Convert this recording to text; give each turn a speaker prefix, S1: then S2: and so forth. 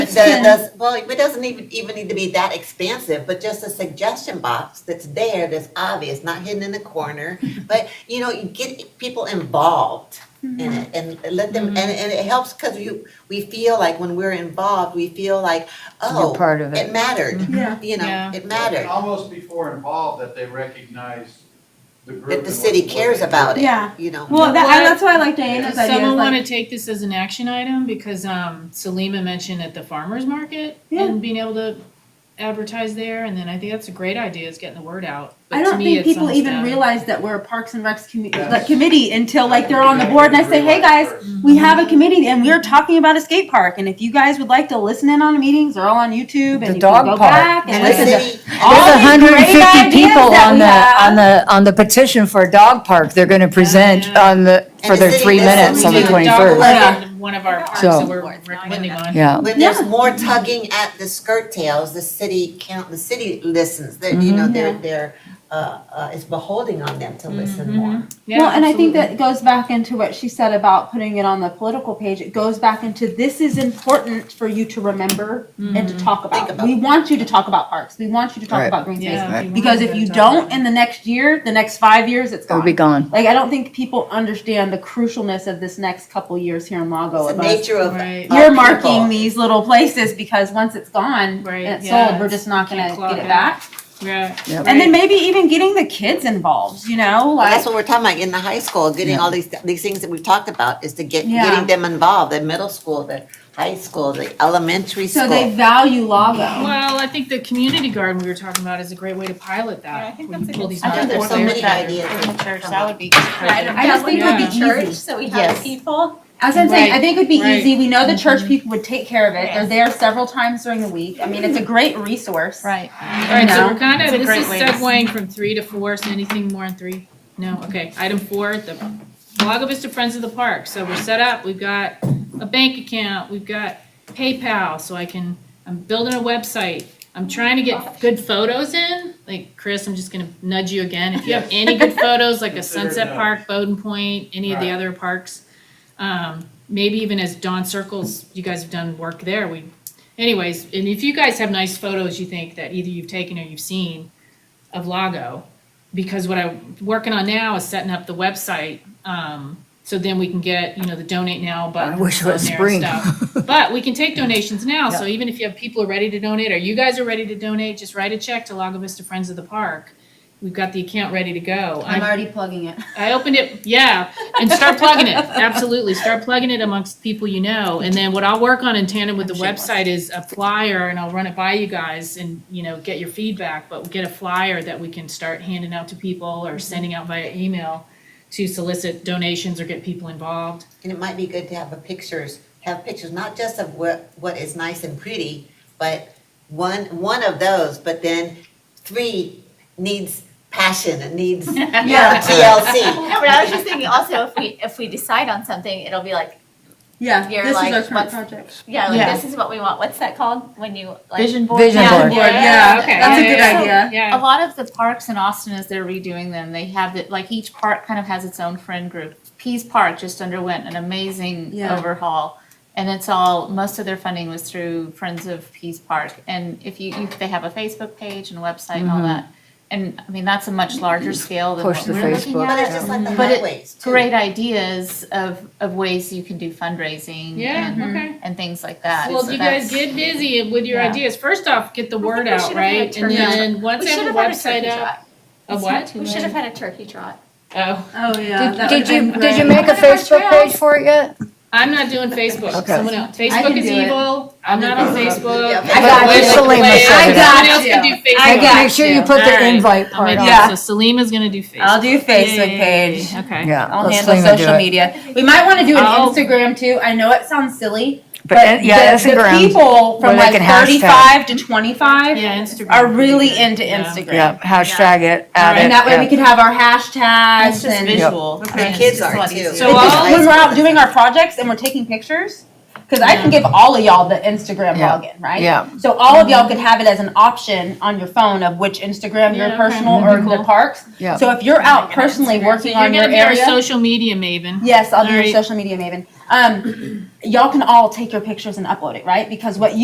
S1: that
S2: can-
S1: does, well, it doesn't even, even need to be that expansive, but just a suggestion box that's there, that's obvious, not hidden in the corner.
S2: Mm-hmm.
S1: But, you know, you get people involved in
S2: Mm-hmm.
S1: it and let them, and, and it helps because you, we feel like when we're involved, we feel like, oh,
S3: part of
S1: it
S3: it.
S1: mattered,
S2: Mm-hmm. Yeah.
S1: you know,
S4: Yeah.
S1: it
S5: It's
S1: mattered.
S5: Almost before involved that they recognize the group.
S1: That the
S5: and
S1: city
S5: what- what
S1: cares
S5: they do.
S1: about it,
S2: Yeah.
S1: you know.
S2: Well, that, I, that's why I like Diana's
S4: Does
S2: idea. is
S4: someone
S2: like-
S4: want to take this as an action item? Because um, Salima mentioned at the farmer's market
S2: Yeah.
S4: and being able to advertise there. And then I think that's a great idea is getting the word out. But
S2: I
S4: to
S2: don't
S4: me,
S2: think
S4: it's
S2: people
S4: almost
S2: even
S4: down.
S2: realize that we're a Parks and Recs commu-
S5: Yes.
S2: like, committee until like they're on the board and I say, hey guys,
S4: Mm-hmm.
S2: we have a committee and we're talking about a skate park. And if you guys would like to listen in on meetings, they're all on YouTube and
S3: The
S2: you can
S3: dog
S2: go
S3: park.
S2: back and
S1: And the
S2: listen to
S1: city,
S2: all
S3: There's
S2: these
S3: hundred and
S2: great ideas
S3: fifty people
S2: that
S3: on
S2: we
S3: the,
S2: have.
S3: on the, on the petition for a dog park. They're gonna present
S4: yeah.
S3: on the, for
S1: the
S3: their
S1: city
S3: three
S1: does
S3: minutes on the
S1: something
S4: We
S1: with
S4: do a dog
S3: twenty-first.
S2: park.
S4: walk in One of our parks
S3: So-
S4: that we're recommending on.
S3: Yeah,
S1: when there's
S2: Yeah.
S1: more tugging at the skirt tails, the city count, the city listens, that, you
S2: Mm-hmm.
S1: know, they're, they're, uh, uh, it's beholding on them to
S2: Mm-hmm.
S1: listen more.
S4: Yeah,
S2: well, and I think that
S4: absolutely.
S2: goes back into what she said about putting it on the political page. It goes back into this is important for you to remember and
S4: Mm-hmm.
S2: to talk about.
S1: Think about.
S2: We want you to talk about parks. We want you to talk
S3: Right.
S2: about green space.
S4: Yeah,
S3: Right.
S4: we
S2: Because
S4: wanted
S2: if
S4: to
S2: you
S4: talk
S2: don't
S4: about it.
S2: in the next year, the next five years, it's
S3: it'll
S2: gone.
S3: be gone.
S2: like I don't think people understand the crucialness of this next couple years here in Lago.
S1: It's
S2: of
S1: the
S2: us
S1: nature of.
S4: Right.
S1: of
S2: You're
S1: people.
S2: marking these little places because once it's gone
S4: Right,
S2: and it's
S4: yeah,
S2: sold, we're just not
S4: can't
S2: gonna
S4: claw
S2: get
S4: it
S2: it back.
S4: Yeah.
S3: Yep.
S2: And then maybe even getting the kids involved, you know,
S1: Well,
S2: like
S1: that's what we're talking about in the high school, getting all these, these things that we've talked about is to get,
S2: Yeah.
S1: getting them involved, the middle school, the high school, the elementary
S2: so they
S1: school.
S2: value Lago.
S4: Well, I think the community garden we were talking about is a great way to pilot that.
S6: Yeah, I think
S4: We
S6: that's a
S4: pull
S6: good
S4: these
S1: I think
S4: out.
S1: there's so many ideas.
S6: in the church,
S1: Come
S6: that
S1: on.
S6: would be.
S2: I don't- I just think
S4: it would be
S6: Yeah.
S2: easy.
S6: Church, so we have
S1: Yes.
S6: people.
S2: As I'm saying, I
S4: Right,
S2: think it'd be
S4: right.
S2: easy. We know the church people would take care of it. They're
S6: Yes.
S2: there several times during the week. I mean, it's a great resource.
S6: Right.
S4: All right, so
S2: No.
S4: we're kind
S6: It's a
S4: of, this
S6: great
S4: is
S6: way to-
S4: segueing from three to four, so anything more on three? No, okay, item four, the Lago Vista Friends of the Park, so we're set up, we've got a bank account, we've got PayPal, so I can, I'm building a website. I'm trying to get good photos in, like, Chris, I'm just gonna nudge you again, if you have any good photos, like a
S5: Consider it
S4: Sunset
S5: done.
S4: Park, Bowden Point, any of the
S5: Right.
S4: other parks. Um, maybe even as Dawn Circles, you guys have done work there, we anyways, and if you guys have nice photos you think that either you've taken or you've seen of Lago, because what I'm working on now is setting up the website, um, so then we can get, you know, the donate now button.
S3: I wish it was spring.
S4: But we can take donations now, so even if you have people who are ready to donate, or you guys are ready to donate, just write a check to Lago Vista Friends of the Park. We've got the account ready to go. I'm-
S2: already plugging it.
S4: I opened it, yeah, and start plugging it. Absolutely, start plugging it amongst people you know. And then what I'll work on in tandem with the website is a flyer, and I'll run it by you guys, and you know, get your feedback. But get a flyer that we can start handing out to people or sending out via email to solicit donations or get people involved.
S1: And it might be good to have a pictures, have pictures, not just of what, what is nice and pretty, but one, one of those, but then three needs passion, it needs, you know,
S2: Yeah.
S1: TLC.
S6: No, but I was just thinking also if we, if we decide on something, it'll be like,
S2: Yeah,
S6: You're
S2: this
S6: like,
S2: is our current
S6: what's-
S2: project.
S6: yeah,
S3: Yeah.
S6: like this is what we want. What's that called when you like?
S3: Vision board. Vision
S6: Yeah,
S3: board.
S2: Yeah,
S4: okay.
S2: that's a
S4: yeah,
S2: good
S4: yeah,
S2: idea.
S6: A
S4: Yeah,
S6: lot of the parks in Austin, as they're redoing them, they have it, like each park kind of has its own friend group. Pease Park just underwent an amazing
S2: Yeah.
S6: overhaul. And it's all, most of their funding was through Friends of Pease Park. And if you, you- they have a Facebook page and website and
S2: Mm-hmm.
S6: all that. And I mean, that's a much larger scale than
S3: Push
S6: what
S3: the
S6: we're looking
S3: Facebook,
S6: at.
S1: But it's just like the
S6: But it-
S1: highways too.
S6: Great ideas of, of ways you can do fundraising.
S4: Yeah,
S6: and-
S4: okay.
S6: And things like that.
S4: Well,
S6: So
S4: you guys
S6: that's-
S4: get busy with your
S6: Yeah.
S4: ideas. First off, get the word
S7: we
S4: out,
S7: should have had a
S4: right? And
S7: turkey
S4: then once
S7: We
S4: I
S7: should
S4: have a
S7: have had a
S4: website
S7: turkey
S4: up,
S7: trot.
S4: a what?
S7: We should have had a turkey trot.
S4: Oh,
S2: Oh, yeah.
S3: Did
S2: that
S3: did
S2: would've been
S3: you, did you
S2: great.
S3: make a
S7: Look at our
S3: Facebook page
S7: trails.
S3: for it yet?
S4: I'm not doing Facebook.
S3: Okay.
S4: Someone else.
S2: I can
S4: Facebook is
S2: do it.
S4: evil. I'm not on Facebook.
S1: Yeah,
S4: I
S2: got you.
S3: Selena said it.
S4: Someone else can do Facebook.
S2: I got
S3: Make sure you
S2: you.
S3: put
S4: All
S3: the
S4: right.
S3: invite
S4: I'll
S3: part
S4: make
S3: on.
S4: that. So Selima's gonna do Facebook.
S2: I'll do Facebook
S4: Yay.
S2: page.
S4: Okay.
S3: Yeah.
S2: I'll
S3: let
S2: handle
S3: Selena do
S2: social
S3: it. Oh.
S2: media. We might want to do an
S4: I'll-
S2: Instagram too. I know it sounds silly, but,
S3: But, uh, yeah,
S2: the, the
S3: Instagram,
S2: people
S3: where
S2: from
S3: they
S2: like
S3: can hashtag.
S2: 35 to 25
S4: Yeah, Instagram.
S2: are really into
S4: Yeah.
S2: Instagram.
S3: yeah, hashtag it, add it.
S2: And that way
S3: yeah.
S2: we could have our hashtags
S6: It's just
S2: and
S6: visual.
S1: The kids are too.
S4: So
S2: It's just
S4: all-
S2: when we're out doing our projects and we're taking pictures, because I can give all of y'all the Instagram
S3: Yeah.
S2: login, right?
S3: Yeah,
S2: So all of y'all could have it as an option on your phone of which Instagram,
S4: Yeah,
S2: your
S4: okay.
S2: personal
S4: That'd be
S2: or the
S4: cool.
S2: parks.
S3: Yeah.
S2: So if you're out personally
S4: So
S2: working
S4: you're
S2: on your
S4: gonna be our
S2: area,
S4: social media maven.
S2: yes, I'll be
S4: All
S2: your
S4: right.
S2: social media maven. Um, y'all can all take your pictures and upload it, right? Because what you